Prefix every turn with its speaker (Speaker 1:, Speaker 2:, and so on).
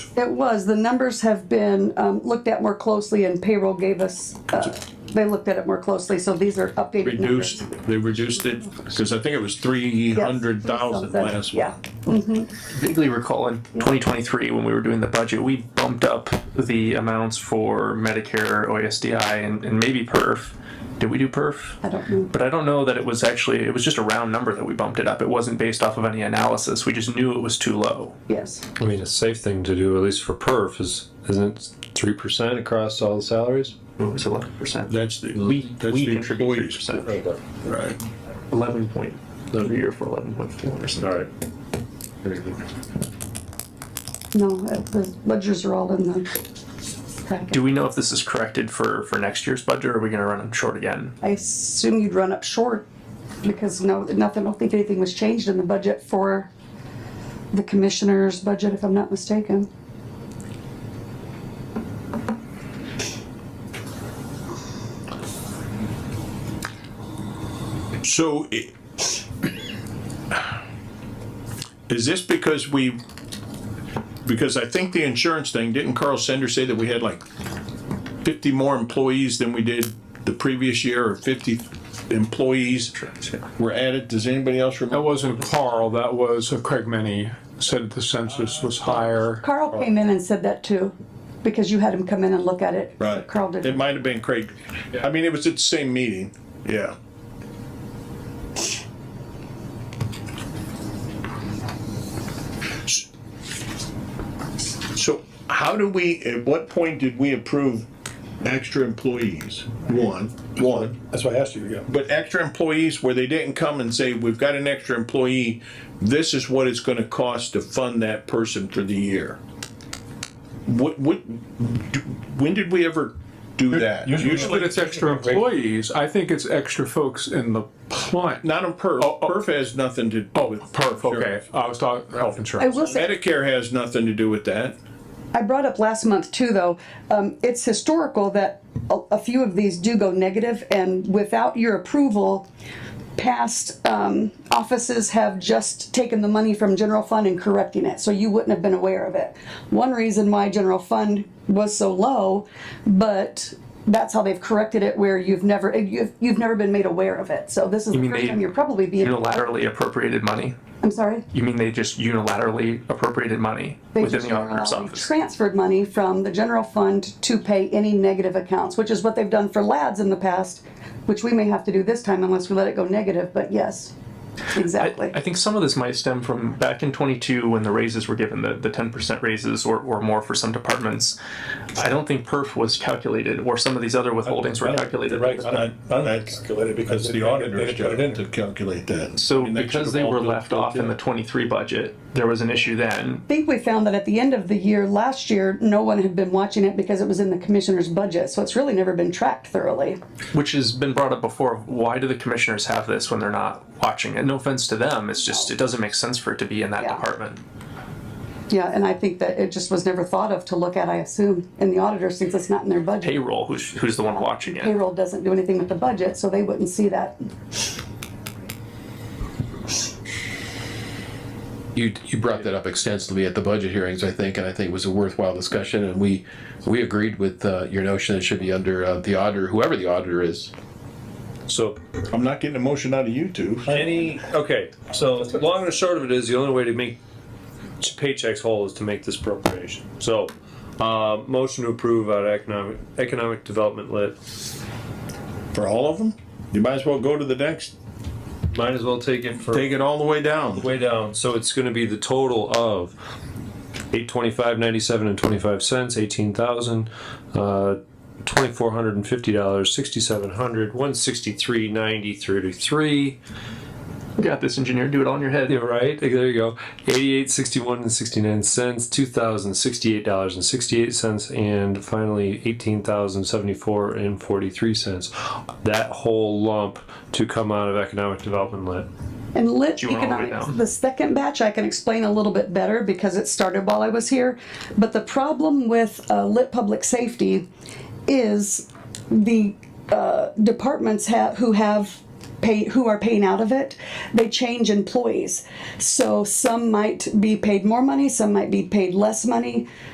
Speaker 1: It was, the numbers have been um, looked at more closely and payroll gave us, uh, they looked at it more closely, so these are updated. numbers.
Speaker 2: Reduced, they reduced it, cause I think it was three
Speaker 1: Yes.
Speaker 2: hundred thousand
Speaker 1: Something,
Speaker 2: last one.
Speaker 1: Yeah,
Speaker 3: vaguely recall in 2023 when we were doing the budget, we bumped up the amounts for Medicare, OSDI, and, and maybe PERF. Did we do PERF?
Speaker 1: I don't know.
Speaker 3: But I don't know that it was actually, it was just a round number that we bumped it up. It wasn't based off of any analysis. We just knew it was too low.
Speaker 1: yes.
Speaker 4: I mean, a safe thing to do, at least for perf, is isn't three percent across all the salaries?
Speaker 3: It was 11%.
Speaker 2: That's the,
Speaker 3: We,
Speaker 2: that's
Speaker 3: we
Speaker 2: the
Speaker 3: contribute
Speaker 2: employees,
Speaker 3: 3%.
Speaker 2: right?
Speaker 3: 11 point, the year for 11.4%.
Speaker 4: All right.
Speaker 1: No, uh, the ledgers are all in the packet.
Speaker 3: Do we know if this is corrected for, for next year's budget or are we going to run them short again?
Speaker 1: I assume you'd run up short because no, nothing, I don't think anything was changed in the budget for the commissioner's budget, if I'm not mistaken.
Speaker 2: So i- is this because we, because I think the insurance thing, didn't Carl Sender say that we had like fifty more employees than we did the previous year or fifty employees were added? Does anybody else
Speaker 5: That
Speaker 2: remember?
Speaker 5: wasn't Carl, that was uh, Craig Many said the census was higher.
Speaker 1: Carl came in and said that too, because you had him come in and look at it.
Speaker 2: Right.
Speaker 1: Carl
Speaker 2: It
Speaker 1: did.
Speaker 2: might have been Craig. I mean, it was at the same meeting. Yeah. So how do we, at what point did we approve extra employees? One, one.
Speaker 6: That's why I asked you, yeah.
Speaker 2: But extra employees where they didn't come and say, we've got an extra employee, this is what it's gonna cost to fund that person for the year. What, what, do- when did we ever do that?
Speaker 5: But it's extra employees, I think it's extra folks in the plant.
Speaker 2: Not on perf, perf has nothing to do
Speaker 5: Oh,
Speaker 2: with.
Speaker 5: perf, okay, I was talking health
Speaker 1: I
Speaker 5: insurance.
Speaker 1: will say,
Speaker 2: Medicare has nothing to do with that.
Speaker 1: I brought up last month too, though, um, it's historical that a, a few of these do go negative and without your approval, past, um, offices have just taken the money from general fund and correcting it, so you wouldn't have been aware of it. One reason why general fund was so low, but that's how they've corrected it where you've never, you've, you've never been made aware of it, so this is the
Speaker 3: mean
Speaker 1: first
Speaker 3: they
Speaker 1: time you're probably being,
Speaker 3: Unilaterally appropriated money?
Speaker 1: I'm sorry?
Speaker 3: You mean they just unilaterally appropriated money
Speaker 1: They
Speaker 3: within
Speaker 1: just
Speaker 3: the auditor's
Speaker 1: unilaterally
Speaker 3: office?
Speaker 1: Transferred money from the general fund to pay any negative accounts, which is what they've done for LADS in the past, which we may have to do this time unless we let it go negative, but yes, exactly.
Speaker 3: I think some of this might stem from back in twenty-two when the raises were given, the, the ten percent raises or, or more for some departments. I don't think perf was calculated or some of these other withholdings were calculated.
Speaker 6: Right,
Speaker 2: Not- not- That's
Speaker 6: calculated because
Speaker 2: the
Speaker 6: they- they
Speaker 2: auditor's
Speaker 6: didn't put
Speaker 2: job
Speaker 6: it in.
Speaker 2: to calculate that.
Speaker 3: So
Speaker 2: And that should
Speaker 3: because
Speaker 2: have
Speaker 3: they
Speaker 2: all
Speaker 3: were
Speaker 2: been
Speaker 3: left
Speaker 2: built
Speaker 3: off in the twenty-three budget, there was an issue then.
Speaker 1: I think we found that at the end of the year, last year, no one had been watching it because it was in the commissioner's budget, so it's really never been tracked thoroughly.
Speaker 3: Which has been brought up before. Why do the commissioners have this when they're not watching it? No offense to them, it's just, it doesn't make sense for it to be in that
Speaker 1: Yeah.
Speaker 3: department.
Speaker 1: Yeah, and I think that it just was never thought of to look at, I assume, in the auditor since it's not in their budget.
Speaker 3: Payroll, who's, who's the one watching it?
Speaker 1: Payroll doesn't do anything with the budget, so they wouldn't see that.
Speaker 7: You, you brought that up extensively at the budget hearings, I think, and I think it was a worthwhile discussion, and we, we agreed with, uh, your notion it should be under, uh, the auditor, whoever the auditor is.
Speaker 4: So
Speaker 2: I'm not getting a motion out of you two.
Speaker 4: any okay. So long and short of it is the only way to make ch- paychecks whole is to make this appropriation. So uh, motion to approve out of economic economic development lit.
Speaker 2: For all of them? You might as well go to the next,
Speaker 4: Might as well take it for
Speaker 2: take it all the way down.
Speaker 4: way down. So it's going to be the total of eight twenty five ninety seven and twenty five cents, eighteen thousand, uh, twenty four hundred and fifty dollars, sixty seven hundred, one sixty three ninety thirty three.
Speaker 3: You Got this engineer, do it all in your head.
Speaker 4: Yeah, right. There you go. Eighty-eight, sixty-one, and sixty-nine cents. Two thousand sixty-eight dollars and sixty-eight cents, and finally eighteen thousand seventy-four and forty-three cents. That whole lump to come out of economic development lit.
Speaker 1: And lit
Speaker 3: you wanna hold it
Speaker 1: economics,
Speaker 3: down?
Speaker 1: the second batch, I can explain a little bit better because it started while I was here. But the problem with uh, lit public safety is the uh, departments ha who have pay, who are paying out of it, they change employees. So some might be paid more money, some might be paid less money.